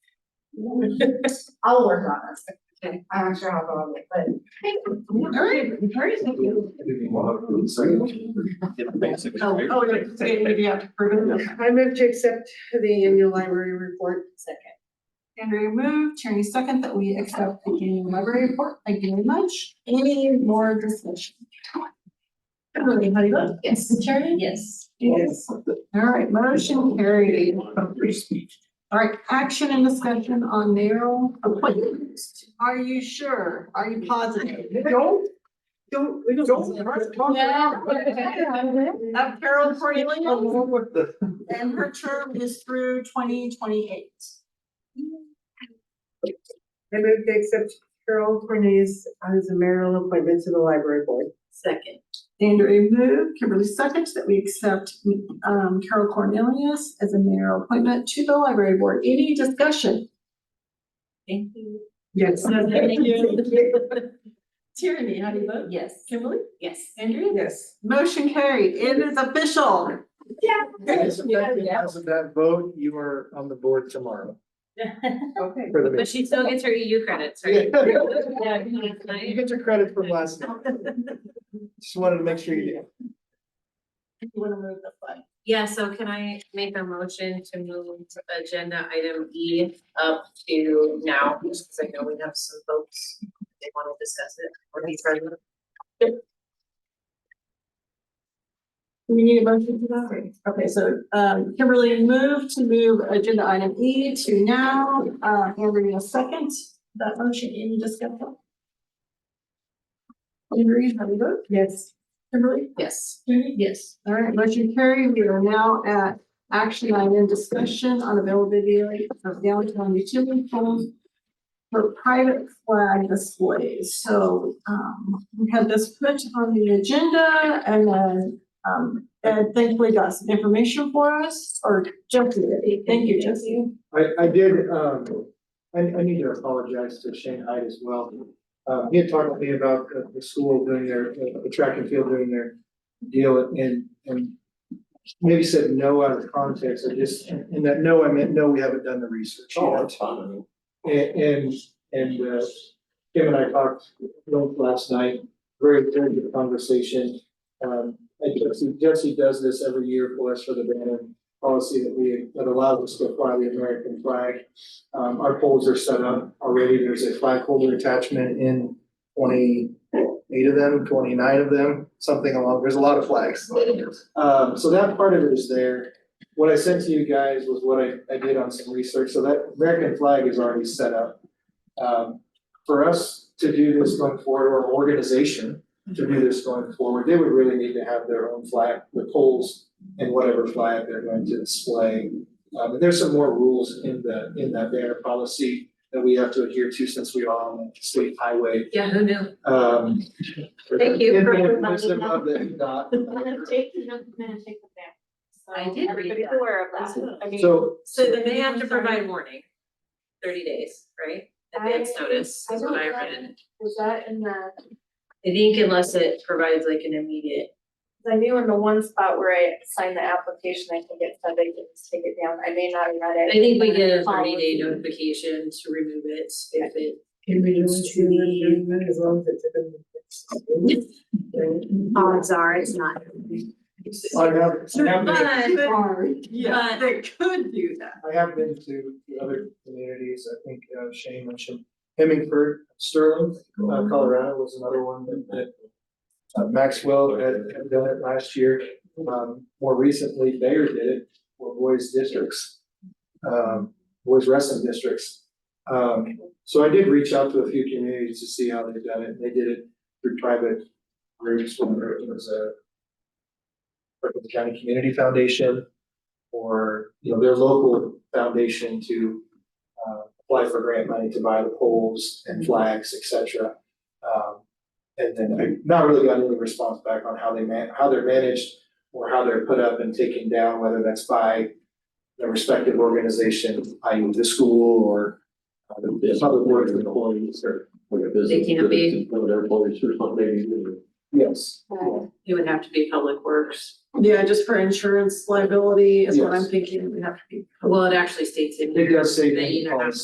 I'll work on this. Okay. I'm not sure how long it, but Alright, very thank you. Oh, oh, you're saying maybe you have to prove it. I move to accept the annual library report. Second. Andrea moved, Tierney second, that we accept the annual library report. Thank you very much. Any more discussion? Kimberly, how do you vote? Yes. Tierney? Yes. Yes. All right, motion carried. All right, action and discussion on mayoral appointments. Are you sure? Are you positive? Don't, don't, we don't. Of Carol Cornelius, and her term is through twenty twenty-eight. I move to accept Carol Cornelius as a mayoral appointment to the library board. Second. Andrew moved, Kimberly seconds that we accept um Carol Cornelius as a mayoral appointment to the library board. Any discussion? Thank you. Yes. Tierney, how do you vote? Yes. Kimberly? Yes. Andrew? Yes. Motion carried. It is official. Isn't that, isn't that vote, you are on the board tomorrow Okay. for the But meeting. she still gets her E EU credits, right? You Yeah. Nice. get your credit from last night. Just wanted to make sure you did. You wanna move the flag? Yeah, so can I make a motion to move agenda item E up to now, just because I know we have some folks that want to discuss it or be present. Do We need a motion for that. Okay, so um Kimberly moved to move agenda item E to now, uh Andrea second. That motion, any discussion? Andrea, how do you vote? Yes. Kimberly? Yes. Yes. All right, motion carried. We are now at action item discussion on availability of downtown utility poles for private flag displays. So, um, we had this put on the agenda and then, um, Ed thankfully got some information for us, or Jeff did. Thank you, Jesse. I, I did, um, I, I need to apologize to Shane Hyde as well. Uh, he had talked to me about uh, the school doing their, uh, the track and field doing their deal and, and maybe said no out of context. I just, in that no, I meant, no, we haven't done the research. yet. fine. And, and, and, uh, Kim and I talked last night, very, very good conversation. Um, and Jesse, Jesse does this every year for us for the banner policy that we, that allows us to fly the American flag. Um, our poles are set up already, there's a flag holder attachment in twenty-eight of them, twenty-nine of them, something along, there's a lot of flags. Um, so that part of it is there. What I sent to you guys was what I, I did on some research, so that American flag is already set up. Um, for us to do this going forward, or an organization to do this going forward, they would really need to have their own flag, the poles and whatever flag they're going to display. Um, and there's some more rules in the, in that banner policy that we have to adhere to since we are on the state highway. Yeah, who knew? Um. Thank you in the for reminding wisdom of the dot. I did read Everybody's that. aware of that. I mean, So, So then they have to provide warning, thirty days, right? Advance notice is what I read. Was that in the, I think unless it provides like an immediate I knew in the one spot where I signed the application, I think it said they could just take it down. I may not have read I it. think we get a thirty day notification to remove it if it. Can we do As long as it's within Odds are it's not. I have, I have been, But Yeah, they could do that. I have been to other communities, I think uh, Shane mentioned Hemingford, Sterling, uh, Colorado was another one that, that uh, Maxwell had, had done it last year, um, more recently Bayer did it for boys districts, um, boys wrestling districts. Um, so I did reach out to a few communities to see how they've done it, they did it through private groups, whether it was a the County Community Foundation, or, you know, their local foundation to uh, apply for grant money to buy the poles and flags, et cetera. Um, and then I not really got any response back on how they man, how they're managed or how they're put up and taken down, whether that's by the respective organization, i.e. the school or uh, the public works employees or, Like a business. They can't be- One of their employees or something. yes. It would have to be public works. Yeah, just for insurance liability is what I'm Yes. thinking. We have to be. Well, it actually states in It here does say that you that either have policy.